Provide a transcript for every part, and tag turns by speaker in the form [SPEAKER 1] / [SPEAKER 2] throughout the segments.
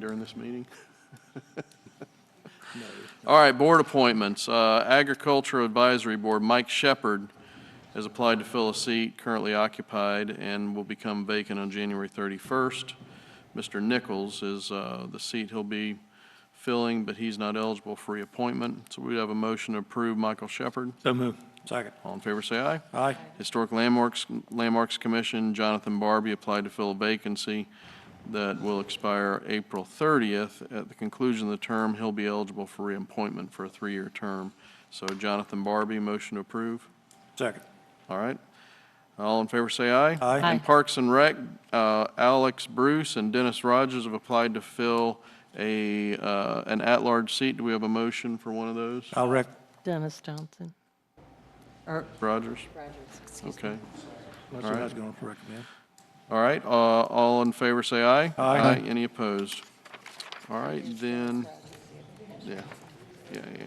[SPEAKER 1] during this meeting? All right, board appointments. Uh, Agriculture Advisory Board, Mike Shepard has applied to fill a seat currently occupied and will become vacant on January 31st. Mr. Nichols is uh, the seat he'll be filling, but he's not eligible for reappointment. So we'd have a motion to approve Michael Shepard.
[SPEAKER 2] So move. Second.
[SPEAKER 1] All in favor, say aye.
[SPEAKER 2] Aye.
[SPEAKER 1] Historic Landmarks, Landmarks Commission, Jonathan Barbie applied to fill a vacancy that will expire April 30th. At the conclusion of the term, he'll be eligible for reappointment for a three-year term. So Jonathan Barbie, motion to approve.
[SPEAKER 2] Second.
[SPEAKER 1] All right. All in favor, say aye.
[SPEAKER 2] Aye. Aye.
[SPEAKER 1] And Parks and Rec, uh, Alex Bruce and Dennis Rogers have applied to fill a, uh, an at-large seat. Do we have a motion for one of those?
[SPEAKER 2] I'll rec,
[SPEAKER 3] Dennis Johnson. Or
[SPEAKER 1] Rogers?
[SPEAKER 3] Rogers, excuse me.
[SPEAKER 1] Okay.
[SPEAKER 2] that's what I was going to recommend.
[SPEAKER 1] All right, uh, all in favor, say aye.
[SPEAKER 2] Aye.
[SPEAKER 1] Any opposed? All right, then, yeah, yeah, yeah.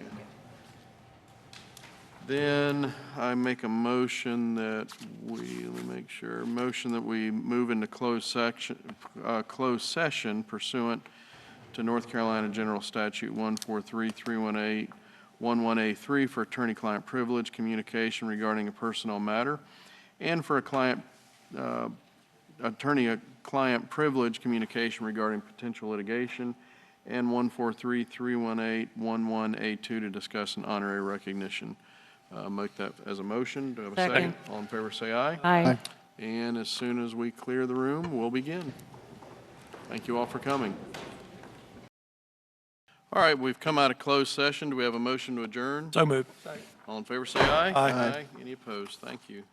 [SPEAKER 1] Then I make a motion that we, let me make sure, motion that we move into closed section, uh, closed session pursuant to North Carolina General Statute 143318, 11A3 for attorney-client privilege, communication regarding a personnel matter, and for a client, uh, attorney-client privilege communication regarding potential litigation, and 143-318-11A2 to discuss an honorary recognition. Uh, Make that as a motion. Do I have a second?
[SPEAKER 3] Second.
[SPEAKER 1] All in favor, say aye.
[SPEAKER 3] Aye.
[SPEAKER 1] And as soon as we clear the room, we'll begin. Thank you all for coming. All right, we've come out of closed session. Do we have a motion to adjourn?
[SPEAKER 2] So move.
[SPEAKER 1] All in favor, say aye.
[SPEAKER 2] Aye.
[SPEAKER 1] Any opposed? Thank you.